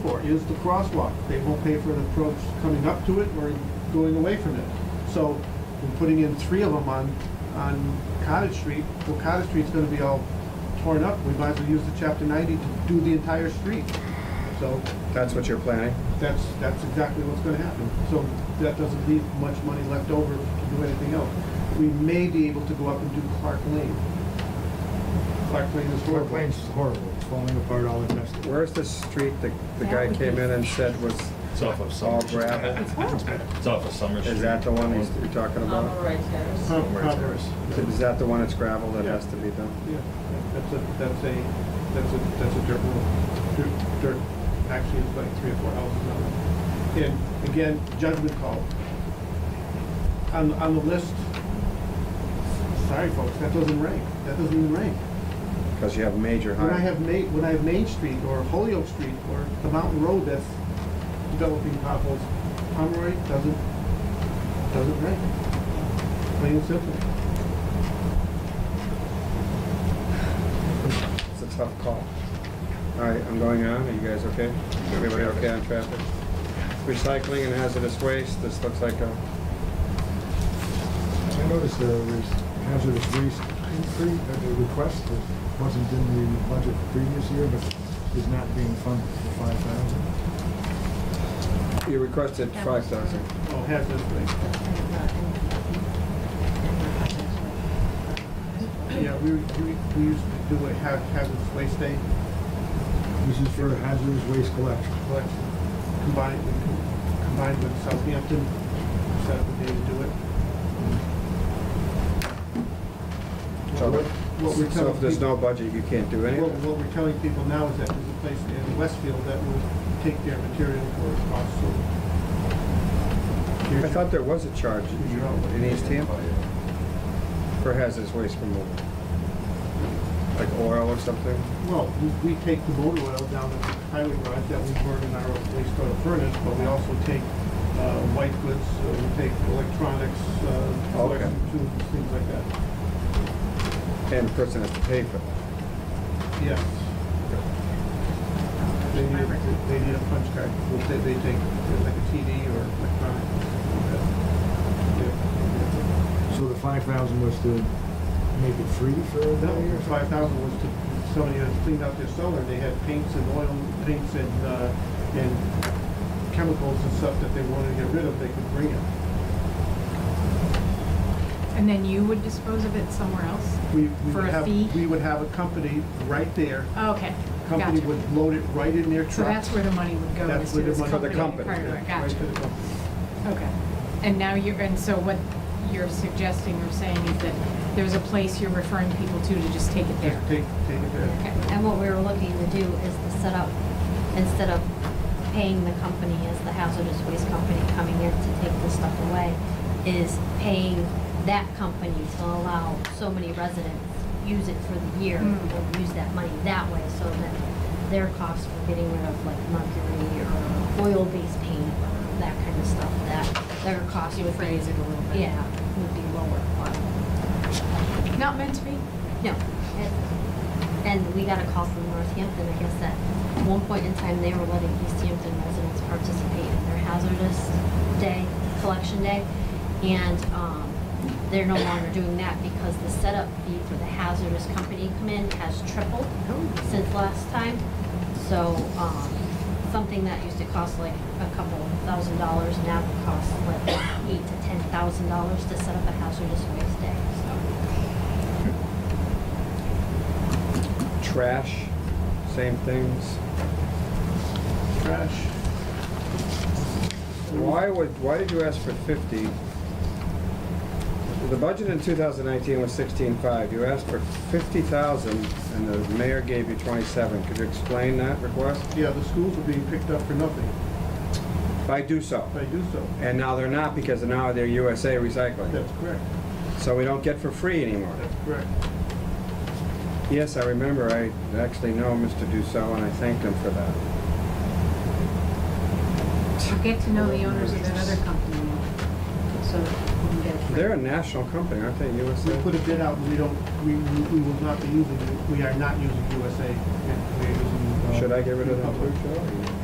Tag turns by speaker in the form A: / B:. A: is the crosswalk. They won't pay for an approach coming up to it or going away from it. So we're putting in three of them on, on Cottage Street. Well, Cottage Street's gonna be all torn up. We might as well use the chapter ninety to do the entire street. So
B: That's what you're planning?
A: that's, that's exactly what's gonna happen. So that doesn't leave much money left over to do anything else. We may be able to go up and do Clark Lane. Clark Lane is
C: Floor
A: horrible.
C: plane's horrible, it's falling apart all the time.
B: Where's the street that the
D: That
B: guy
D: would
B: came
D: be-
B: in and said was,
E: It's off of
B: All
E: Summer. Street.
B: gravel.
E: It's off of Summer Street.
B: is that the one he's- you're talking
D: All
B: about?
D: right, Terrace.
A: Huh,
E: Where
A: huh.
E: it's ours.
B: Is that the one that's gravel that has to be done?
A: Yeah, that's a, that's a, that's a, that's a dirt road. Dirt, dirt, actually, it's like three or four houses on it. And again, judgment call. On, on the list, sorry folks, that doesn't rank, that doesn't even rank.
B: Because you have major
A: When I
B: high,
A: have Ma, when I have Main Street or Holyoke Street or the Mountain Road that's developing potholes, Pomeroy doesn't, doesn't rank. Plain and simple.
B: it's a tough call. All right, I'm going on, are you guys okay? Everybody okay on traffic? Recycling and hazardous waste, this looks like a,
C: I noticed there was hazardous waste increase, uh, the request that wasn't in the budget the previous year, but is not being funded for five thousand.
B: you requested five thousand.
A: Oh, has this rank. Yeah, we, we, we used to do a ha- hazardous waste day
C: This is for hazardous waste collection.
A: collection combined, with- combined with Southampton, set up a day to do it.
B: So-
A: What- What we're
B: So
A: telling
B: if there's
A: people,
B: no budget, you can't do
A: what,
B: anything.
A: what we're telling people now is that there's a place in Westfield that will take their material for a cost, so.
B: I thought there was a charge
A: You're out.
B: in East Hampton for hazardous waste removal. Like oil or something?
A: Well, we, we take the motor oil down at the highway garage that we burn in our waste oil furnace, but we also take, uh, white goods, uh, we take electronics, uh,
B: Okay.
A: electric tubes, things like that.
B: And the person has to pay for it.
A: Yes. They need, they need a punch card, We'll say they take like a TD or electronic. Yeah.
C: So the five thousand was to make it free for that year?
A: No, five thousand was to, somebody had cleaned out their cellar, they had paints and oil, paints and, uh, and chemicals and stuff that they wanted to get rid of, they could bring it.
F: And then you would dispose of it somewhere else?
A: We, we
F: For
A: would
F: a
A: have,
F: fee? Oh,
A: we would have a company right there,
F: Okay,
A: company
F: gotcha.
A: would load it right in their truck.
F: So that's where the money would go,
A: That's
F: is
A: where
F: to
A: the money-
F: this company?
A: For
B: the company,
F: Right, right,
A: Right to the
F: Gotcha,
A: company.
F: okay. And now you're, and so what you're suggesting or saying is that there's a place you're referring people to to just take it there?
A: Just take, take it there.
F: Okay.
G: And what we were looking to do is to set up, instead of paying the company as the hazardous waste company coming in to take this stuff away, is paying that company to allow so many residents use it for the year,
F: Mm.
G: or use that money that way, so that their costs for getting rid of like mercury or oil-based paint, or that kind of stuff, that their cost
F: You
G: would be.
F: phrase it a little bit.
G: Yeah, would be lower on
F: Not meant to be?
G: no. And- And we got a call from Northampton, I guess, that at one point in time, they were letting East Hampton residents participate in their hazardous day, collection day. And um, they're no longer doing that because the setup fee for the hazardous company to come in has tripled since last time. So um, something that used to cost like a couple thousand dollars now costs like eight to ten thousand dollars to set up a hazardous waste day, so.
B: Trash, same things.
A: Trash.
B: Why would, why did you ask for fifty? The budget in two thousand nineteen was sixteen-five, you asked for fifty thousand, and the mayor gave you twenty-seven, could you explain that request?
A: Yeah, the schools are being picked up for nothing
B: If I do so,
A: if I do so.
B: and now they're not, because now they're USA Recycling,
A: That's correct,
B: so we don't get for free anymore.
A: that's correct.
B: Yes, I remember, I actually know Mr. Dussault, and I thanked him for that.
F: You get to know the owners of that other company, so you can get it free.
B: They're a national company, aren't they,
A: We
B: USA?
A: put a bid out and we don't, we, we we will not be using, it. we are not using USA. and we are using, uh,
B: Should I get rid of that blue
A: Republic.
B: shirt?